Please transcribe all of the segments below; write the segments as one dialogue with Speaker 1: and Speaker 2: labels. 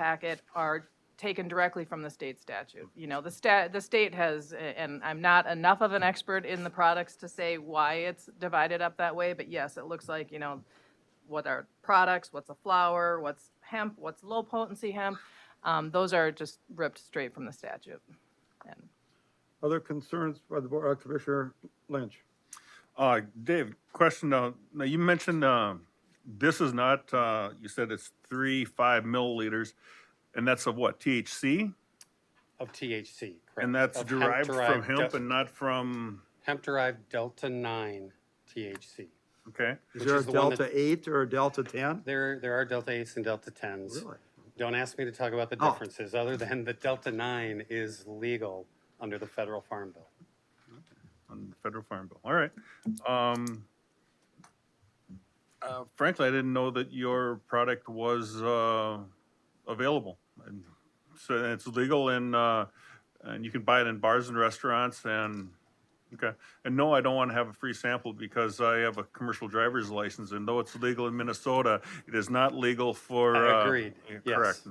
Speaker 1: packet are taken directly from the state statute. You know, the sta, the state has, and I'm not enough of an expert in the products to say why it's divided up that way, but yes, it looks like, you know, what are products, what's a flower, what's hemp, what's low potency hemp. Um, those are just ripped straight from the statute. And
Speaker 2: Other concerns by the board, uh, Commissioner Lynch?
Speaker 3: Uh, Dave, question, uh, now you mentioned, uh, this is not, uh, you said it's three, five milliliters, and that's of what, THC?
Speaker 4: Of THC, correct.
Speaker 3: And that's
Speaker 4: Of
Speaker 3: derived from
Speaker 4: hemp-derived
Speaker 3: hemp
Speaker 4: del-
Speaker 3: and not from,
Speaker 4: Hemp-derived delta-9 THC.
Speaker 3: okay,
Speaker 2: Is
Speaker 4: Which
Speaker 2: there a
Speaker 4: is the one
Speaker 2: Delta
Speaker 4: that-
Speaker 2: eight or a Delta ten?
Speaker 4: There, there are delta-8s and delta-10s.
Speaker 2: Really?
Speaker 4: Don't ask me to talk about the
Speaker 2: Oh.
Speaker 4: differences, other than the delta-9 is legal under the federal farm bill.
Speaker 3: on the federal farm bill, all right. Um, uh, frankly, I didn't know that your product was, uh, available. And So it's legal and, uh, and you can buy it in bars and restaurants and, okay. And no, I don't want to have a free sample because I have a commercial driver's license and though it's legal in Minnesota, it is not legal for.
Speaker 4: Uh,
Speaker 3: uh,
Speaker 4: agreed,
Speaker 3: Correct.
Speaker 4: yes.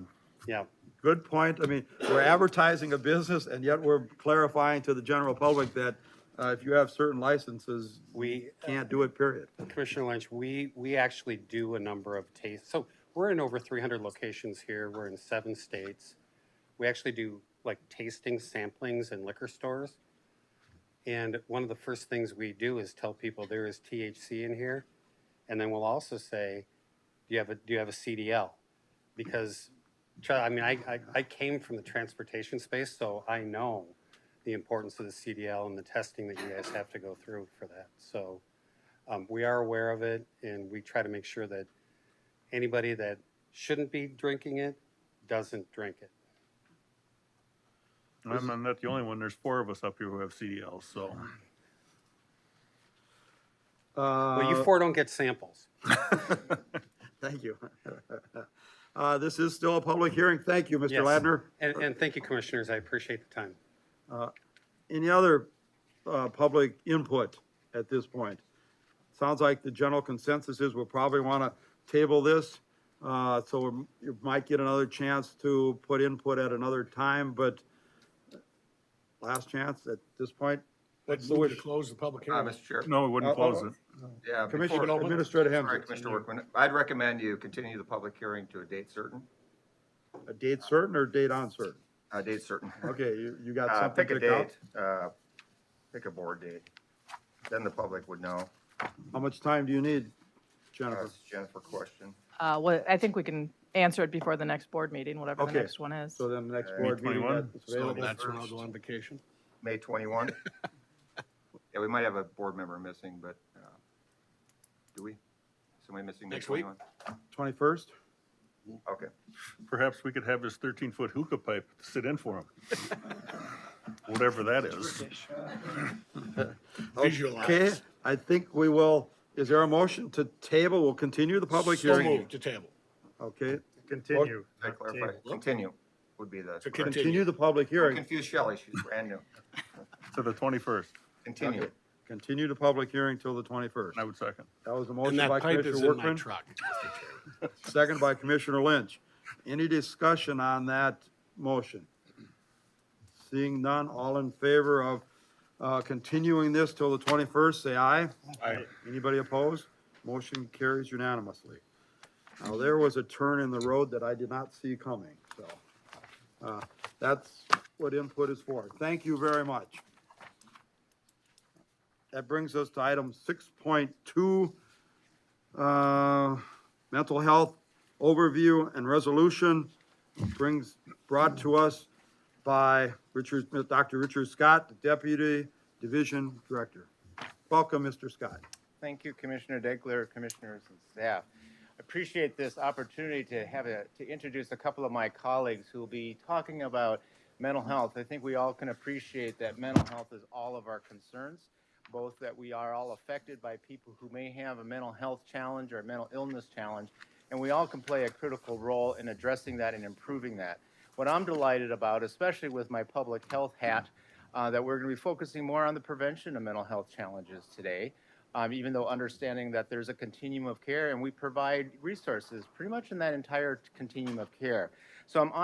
Speaker 4: Yeah,
Speaker 2: Good point. I mean, we're advertising a business and yet we're clarifying to the general public that, uh, if you have certain licenses,
Speaker 4: we,
Speaker 2: can't do it, period.
Speaker 4: Commissioner Lynch, we, we actually do a number of tastes. So we're in over 300 locations here. We're in seven states. We actually do like tasting samplings in liquor stores. And one of the first things we do is tell people there is THC in here. And then we'll also say, do you have a, do you have a CDL? Because, try- I mean, I, I, I came from the transportation space, so I know the importance of the CDL and the testing that you guys have to go through for that. So, um, we are aware of it and we try to make sure that anybody that shouldn't be drinking it doesn't drink it.
Speaker 3: I'm I'm not the only one. There's four of us up here who have CDLs, so.
Speaker 4: Well, you
Speaker 2: Uh,
Speaker 4: four don't get samples.
Speaker 2: Thank you. Uh, this is still a public hearing. Thank you, Mr.
Speaker 4: Yes.
Speaker 2: Ladner.
Speaker 4: And, and thank you, commissioners. I appreciate the time.
Speaker 2: Any other uh, public input at this point? Sounds like the general consensus is we'll probably want to table this. uh, So we- you might get another chance to put input at another time, but last chance at this point.
Speaker 5: Let's move to close the public
Speaker 6: Uh,
Speaker 5: hearing.
Speaker 6: Mr. Chair,
Speaker 3: No, we
Speaker 2: Uh,
Speaker 3: wouldn't
Speaker 2: oh,
Speaker 3: close it.
Speaker 6: yeah.
Speaker 2: Commissioner,
Speaker 6: before-
Speaker 5: Nolan?
Speaker 2: Administrator
Speaker 6: Sorry,
Speaker 2: Hemsworth,
Speaker 6: Commissioner Workman, I'd recommend you continue the public hearing to a date certain,
Speaker 2: a date certain or date uncertain?
Speaker 6: a date certain.
Speaker 2: Okay, you, you got
Speaker 6: Uh,
Speaker 2: something
Speaker 6: pick a
Speaker 2: picked out?
Speaker 6: date, uh, pick a board date. Then the public would know.
Speaker 2: How much time do you need,
Speaker 6: Uh,
Speaker 2: Jennifer?
Speaker 6: it's Jennifer question.
Speaker 1: uh, what, I think we can answer it before the next board meeting, whatever the
Speaker 2: Okay.
Speaker 1: next one is.
Speaker 2: So then the next
Speaker 6: Uh,
Speaker 2: board meeting
Speaker 3: 21?
Speaker 2: that's
Speaker 5: So
Speaker 2: available.
Speaker 5: that's when I'll go on vacation.
Speaker 6: May twenty-one? Yeah, we might have a board member missing, but, uh, do we? Somebody missing May
Speaker 5: Next week?
Speaker 6: twenty-one?
Speaker 2: Twenty-first?
Speaker 6: Okay.
Speaker 3: Perhaps we could have his thirteen-foot hookah pipe sit in for him. Whatever that is.
Speaker 2: Okay,
Speaker 5: Visualize.
Speaker 2: I think we will, is there a motion to table? We'll continue the public
Speaker 5: So
Speaker 2: hearing.
Speaker 5: moved to table.
Speaker 2: Okay,
Speaker 7: Continue.
Speaker 6: Did I
Speaker 7: not
Speaker 6: clarify?
Speaker 7: table.
Speaker 6: Continue would be the.
Speaker 5: To
Speaker 6: correct-
Speaker 2: continue the public hearing.
Speaker 6: Confuse Shelley, she's brand new.
Speaker 3: To the twenty-first,
Speaker 6: Continue.
Speaker 2: Continue the public hearing till the twenty-first.
Speaker 3: I would second.
Speaker 2: That was a
Speaker 5: And
Speaker 2: motion
Speaker 5: that
Speaker 2: by
Speaker 5: pipe is
Speaker 2: Commissioner
Speaker 5: in my
Speaker 2: Workman,
Speaker 5: truck. Mr. Chair.
Speaker 2: second by Commissioner Lynch. Any discussion on that motion? Seeing none, all in favor of, uh, continuing this till the twenty-first, say aye.
Speaker 3: Aye.
Speaker 2: Anybody opposed? Motion carries unanimously. Now, there was a turn in the road that I did not see coming, so. uh, That's what input is for. Thank you very much. That brings us to item six point two, uh, mental health overview and resolution. Brings, brought to us by Richard, Dr. Richard Scott, the Deputy Division Director. Welcome, Mr. Scott.
Speaker 8: Thank you, Commissioner Degler, Commissioners and staff. Appreciate this opportunity to have a, to introduce a couple of my colleagues who will be talking about mental health. I think we all can appreciate that mental health is all of our concerns, both that we are all affected by people who may have a mental health challenge or a mental illness challenge, and we all can play a critical role in addressing that and improving that. What I'm delighted about, especially with my public health hat, uh, that we're going to be focusing more on the prevention of mental health challenges today um, even though understanding that there's a continuum of care and we provide resources pretty much in that entire continuum of care. So I'm on